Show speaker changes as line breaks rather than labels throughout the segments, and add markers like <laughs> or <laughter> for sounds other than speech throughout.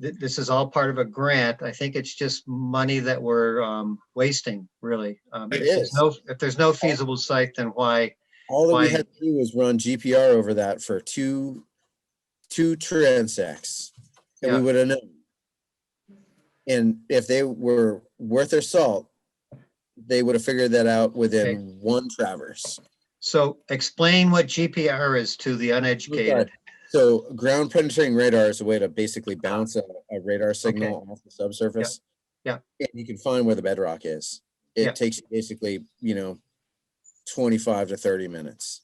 th- this is all part of a grant. I think it's just money that we're um, wasting, really. Um,
It
if there's
is.
no- If there's no feasible site, then why?
All that we
Fine.
had to do was run GPR over that for two, two transects. And we
Yeah.
would have known. And if they were worth their salt, they would have figured that out within one traverse.
So explain what GPR is to the uneducated.
So ground penetrating radar is a way to basically bounce a, a radar signal off the subsurface.
Yeah.
And you can find where the bedrock is.
Yeah.
It takes you basically, you know, twenty-five to thirty minutes.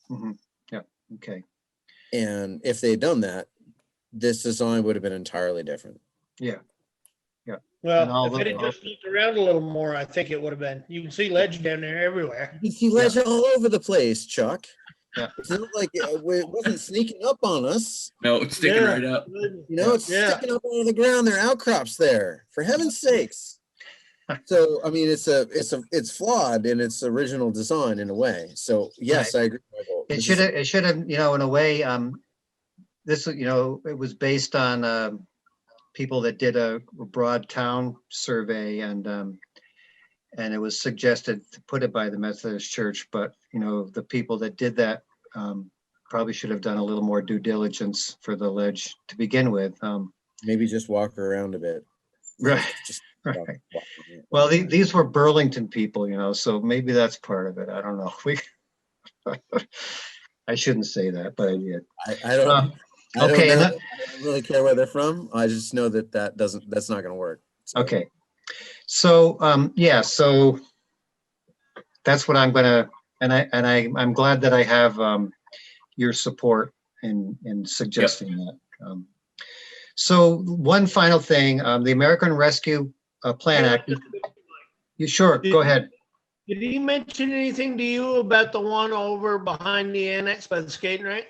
Okay,
And if they had done that, this design would have been entirely different.
And all
Well, if it
the-
had just looked around a little more, I think it would have been, you can see ledge down there everywhere.
You see ledge all over the place, Chuck.
Yeah.
It's not like uh, wa- it wasn't sneaking up on us.
No, it's sticking
Yeah.
right up.
You know, it's
Yeah.
sticking up out of the ground. There are outcrops there, for
<laughs>
heaven's sakes. So, I mean, it's a, it's a, it's flawed in its original design in a way. So, yes, I agree. Michael.
it
This
should
is-
have, it should have, you know, in a way, um, this, you know, it was based on um, people that did a broad town survey and um, and it was suggested to put it by the Methodist Church, but, you know, the people that did that um, probably should have done a little more due diligence for the ledge to begin with. Um,
Maybe just walk around a bit.
Right,
Just walk-
right.
walk around.
Well, the- these were Burlington people, you know, so maybe that's part of it. I don't know. <laughs> We, I shouldn't say that, but I did.
I, I don't.
Um,
I don't
okay, and
know.
that-
I don't really care where they're from. I just know that that doesn't. That's not going to work. So,
Okay. So, um, yeah, so that's what I'm gonna, and I, and I, I'm glad that I have, um, your support in, in suggesting that. Um, So one final thing, um, the American Rescue uh, Plan Act, you sure, go ahead.
Did he mention anything to you about the one over behind the annex by the skating rink?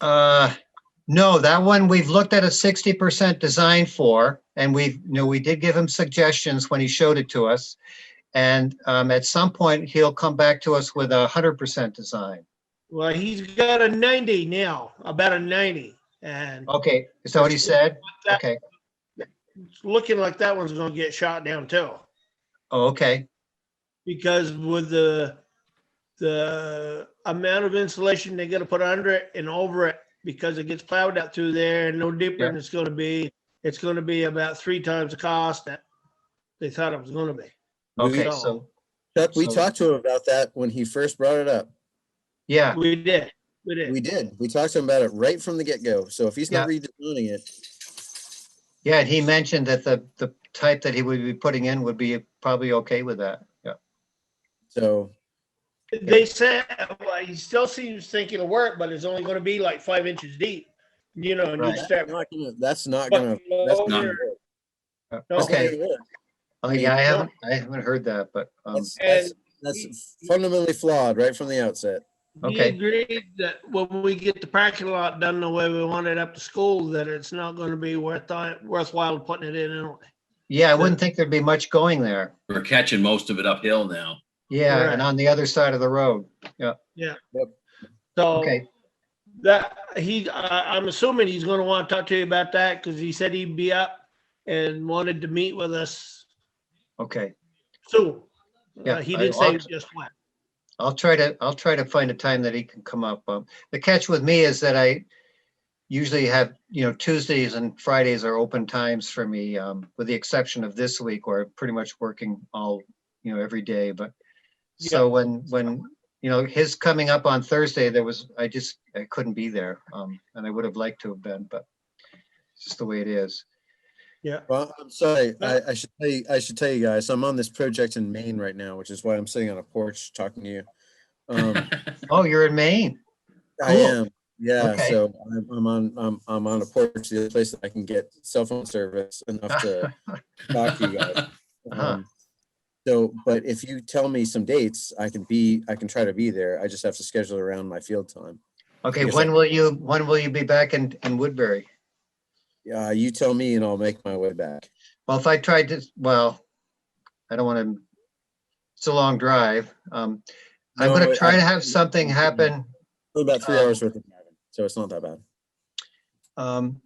Uh, no, that one, we've looked at a sixty percent design for, and we've, you know, we did give him suggestions when he showed it to us. And, um, at some point, he'll come back to us with a hundred percent design.
Well, he's got a ninety now, about a ninety, and
Okay, is that what he said?
that-
Okay,
it's looking like that one's gonna get shot down too.
oh, okay,
Because with the, the amount of insulation they gotta put under it and over it, because it gets plowed out through there and no deeper than it's gonna be, it's gonna be about three times the cost that they thought it was gonna be.
okay,
So-
so,
Chuck, we
So-
talked to him about that when he first brought it up.
yeah,
We did, we did.
We did. We talked to him about it right from the get go. So if he's not redesigning it,
yeah, and he mentioned that the, the type that he would be putting in would be probably okay with that, yeah.
so
They said, well, he still seems thinking it'll work, but it's only gonna be like five inches deep, you know, and you
Right.
start.
that's not gonna- that's not gonna.
fucking
That's
not-
not.
over.
that's not
Okay,
gonna work.
oh, yeah, I haven't, I haven't heard that, but, um,
That's-
And
That's that's fundamentally flawed right from the outset.
he
Okay.
agreed that when we get the parking lot done the way we want it up to school, that it's not gonna be worth, uh, worthwhile putting it in. anyway.
yeah, I wouldn't think there'd be much going there.
We're catching most of it uphill now.
Yeah, and
Correct.
on the other side of the road,
So
okay,
that, he, I, I'm assuming he's gonna wanna talk to you about that, cause he said he'd be up and wanted to meet with us
okay.
soon.
Yeah,
Uh, He
I-
didn't say
I'll-
just when.
I'll try to, I'll try to find a time that he can come up. Um, the catch with me is that I usually have, you know, Tuesdays and Fridays are open times for me, um, with the exception of this week where I'm pretty much working all, you know, every day, but
Yeah.
so when, when, you know, his coming up on Thursday, there was, I just, I couldn't be there. Um, and I would have liked to have been, but it's just the way it is.
Well, I'm sorry.
Yeah.
I, I should tell you, I should tell you guys, I'm on this project in Maine right now, which is why I'm sitting on a porch talking to you. Um,
Oh, you're in Maine?
I
Cool.
am. Yeah.
Okay.
So I'm, I'm on, I'm, I'm on a porch, the other place that I can get cell phone service enough
<laughs>
to talk to you guys.
Uh-huh.
Um, So, but if you tell me some dates, I can be, I can try to be there. I just have to schedule around my field time.
Okay,
Yes, I-
when will you, when will you be back in, in Woodbury?
Uh, you tell me and I'll make my way back.
Well, if I tried to, well, I don't want to, it's a long drive. Um, I'm
No,
gonna
I-
try to have something happen.
About three
Um,
hours worth of driving, so it's not that bad.
Um,